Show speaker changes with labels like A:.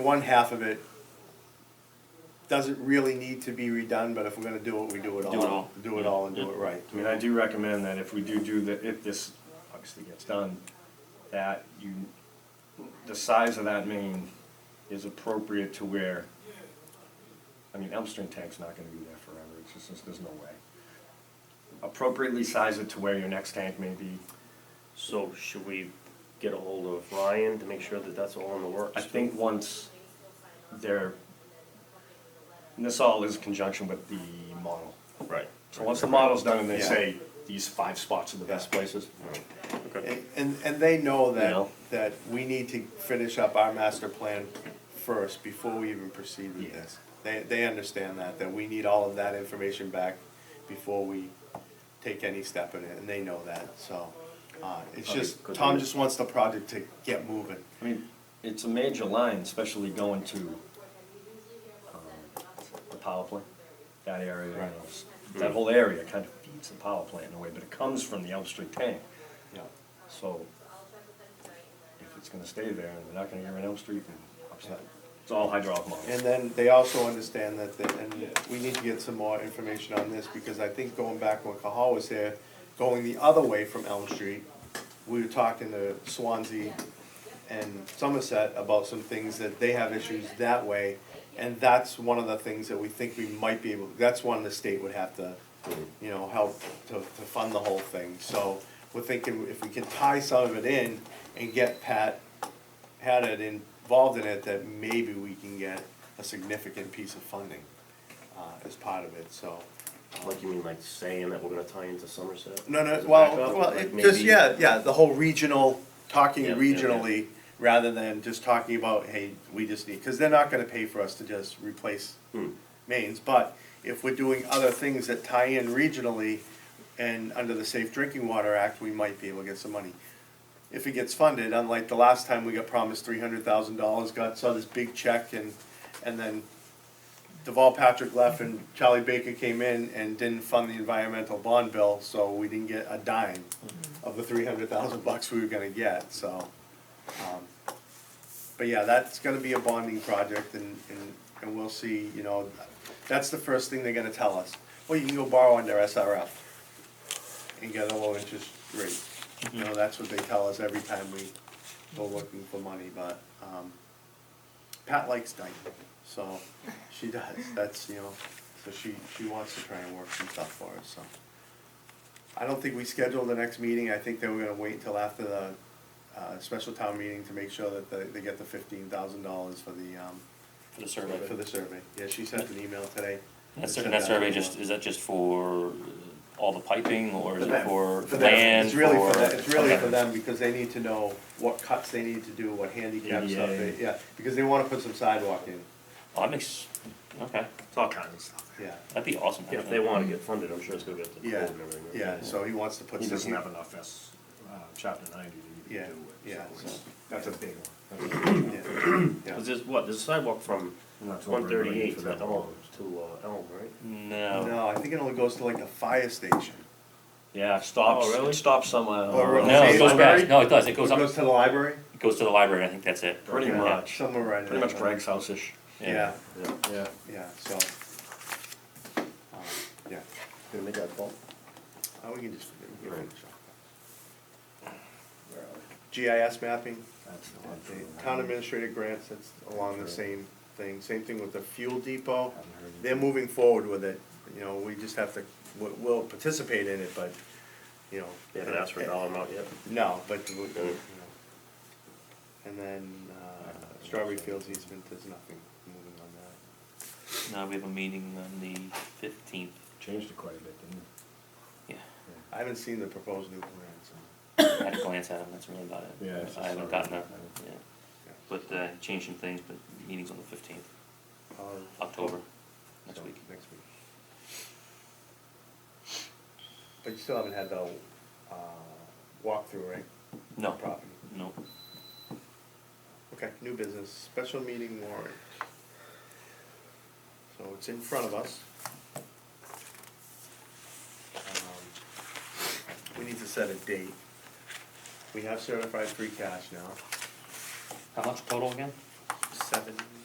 A: One half of it doesn't really need to be redone, but if we're gonna do it, we do it all.
B: Do it all.
A: Do it all and do it right.
C: I mean, I do recommend that if we do do the, if this obviously gets done, that you, the size of that main is appropriate to where, I mean, Elmstone tank's not gonna be there forever, it's just, there's- there's no way. Appropriately size it to where your next tank may be,
B: So should we get a hold of Ryan to make sure that that's all in the works?
C: I think once they're, and this all is in conjunction with the model.
B: Right.
C: So once the model's done and they
A: Yeah.
C: say, these five spots are the best places,
B: Okay.
A: And- And, and they know
C: You
A: that,
C: know.
A: that we need to finish up our master plan first before we even proceed with
C: Yeah.
A: this. They, they understand that, that we need all of that information back before we take any step in it, and they know that, so. Uh, it's
B: Okay,
A: just,
B: good.
A: Tom just wants the project to get moving.
C: I mean, it's a major line, especially going to um, the power plant, that area, you know,
A: Right.
C: s- that whole area kind of feeds the power plant in a way, but it comes from the Elm Street tank.
A: Yeah.
C: So if it's gonna stay there, and they're not gonna get rid of Elm Street, then upset. It's all hydraulic
A: And
C: models.
A: then they also understand that, the- and we need to get some more information on this, because I think going back when Cahal was there, going the other way from Elm Street, we were talking to Swansea and Somerset about some things that they have issues that way. And that's one of the things that we think we might be able, that's one the state would have to, you know, help to, to fund the whole thing. So we're thinking if we can tie some of it in and get Pat had it involved in it, that maybe we can get a significant piece of funding uh, as part of it, so.
B: Like you mean like saying that we're gonna tie into Somerset?
A: No, no,
B: As a
A: well,
B: backup?
A: well,
B: Like
A: it just,
B: maybe-
A: yeah, yeah, the whole regional, talking
B: Yeah, yeah, yeah.
A: regionally, rather than just talking about, hey, we just need, because they're not gonna pay for us to just replace
B: Hmm.
A: mains, but if we're doing other things that tie in regionally and under the Safe Drinking Water Act, we might be able to get some money. If it gets funded, unlike the last time we got promised three hundred thousand dollars, got, saw this big check and, and then Deval Patrick left and Charlie Baker came in and didn't fund the environmental bond bill, so we didn't get a dime of the three hundred thousand bucks we were gonna get, so. um, But yeah, that's gonna be a bonding project and, and, and we'll see, you know, that's the first thing they're gonna tell us. Well, you can go borrow under SRF and get a low interest rate. You know, that's what they tell us every time we go looking for money, but, um, Pat likes Dyke, so she does, that's, you know, so she, she wants to try and work some stuff for us, so. I don't think we scheduled the next meeting, I think they were gonna wait until after the, uh, special town meeting to make sure that they, they get the fifteen thousand dollars for the, um,
D: For the survey.
A: for the survey, yeah, she sent an email today.
D: That
A: Sent
D: sur- that
A: out
D: survey
A: email.
D: just, is that just for all the piping or is
A: For
D: it
A: them.
D: for
A: For them.
D: land?
A: It's really for
D: for-
A: them, it's really for
D: okay.
A: them, because they need to know what cuts they need to do, what handicap
D: E
A: stuff
C: Yeah.
A: they, yeah, because they wanna put some sidewalk in,
D: Oh, that makes, okay,
C: It's all kinds of stuff.
A: yeah,
D: that'd be awesome.
B: Yeah, if they
D: actually.
B: wanna get funded, I'm sure it's gonna get to the
A: yeah,
B: board and everything.
A: yeah, so he wants to put
C: He
A: some.
C: doesn't have enough S, uh, chapter ninety to
A: Yeah,
C: even do it,
A: yeah.
C: so it's, that's a big one.
A: Yeah, yeah.
B: Cause there's what, there's a sidewalk from
C: Not till we're
B: one
C: ready
B: thirty-eight
C: for
B: to
C: that
B: Elm,
C: one.
B: to uh, Elm, right?
D: No,
A: No, I think it only goes to like the fire station.
C: Yeah, it stops,
B: Oh, really?
C: it stops somewhere.
A: Oh, really?
D: no, it goes
A: Library?
D: back, no, it does, it
A: It
D: goes up,
A: goes
D: it
A: to the library?
D: goes to the library, I think that's it.
C: Pretty
A: Yeah,
C: much.
A: Somewhere right in
C: Pretty much
A: there.
C: Greg's house-ish.
A: Yeah,
B: Yeah.
C: Yeah.
A: yeah, so. um, Yeah,
B: Gonna make that call?
A: Uh, we can just. we can
B: Right.
A: finish up. GIS mapping,
C: That's the one
A: the
C: for-
A: town administrator grants, that's along the same thing, same thing with the fuel depot.
C: Haven't heard anything.
A: They're moving forward with it, you know, we just have to, we- we'll participate in it, but, you know.
B: They haven't asked for a dollar amount yet.
A: No, but, we- you know. And then, uh, Strawberry Fields easement, there's nothing moving on that.
D: No, we have a meeting on the fifteenth,
C: Changed it quite a bit, didn't it?
D: yeah,
A: I haven't seen the proposed new plan, so,
D: I had a glance at them, that's really about it.
C: Yeah, it's
D: I haven't
C: just-
D: gotten a, yeah,
A: yeah.
D: but, uh, changed some things, but meeting's on the fifteenth,
A: I'll-
D: October, next
A: so,
D: week.
A: Next week. But you still haven't had the, uh, walkthrough, right?
D: No,
A: Property.
D: no,
A: Okay, new business, special meeting warrant. So it's in front of us. Um, We need to set a date. We have certified free cash now,
D: how much total again?
A: seven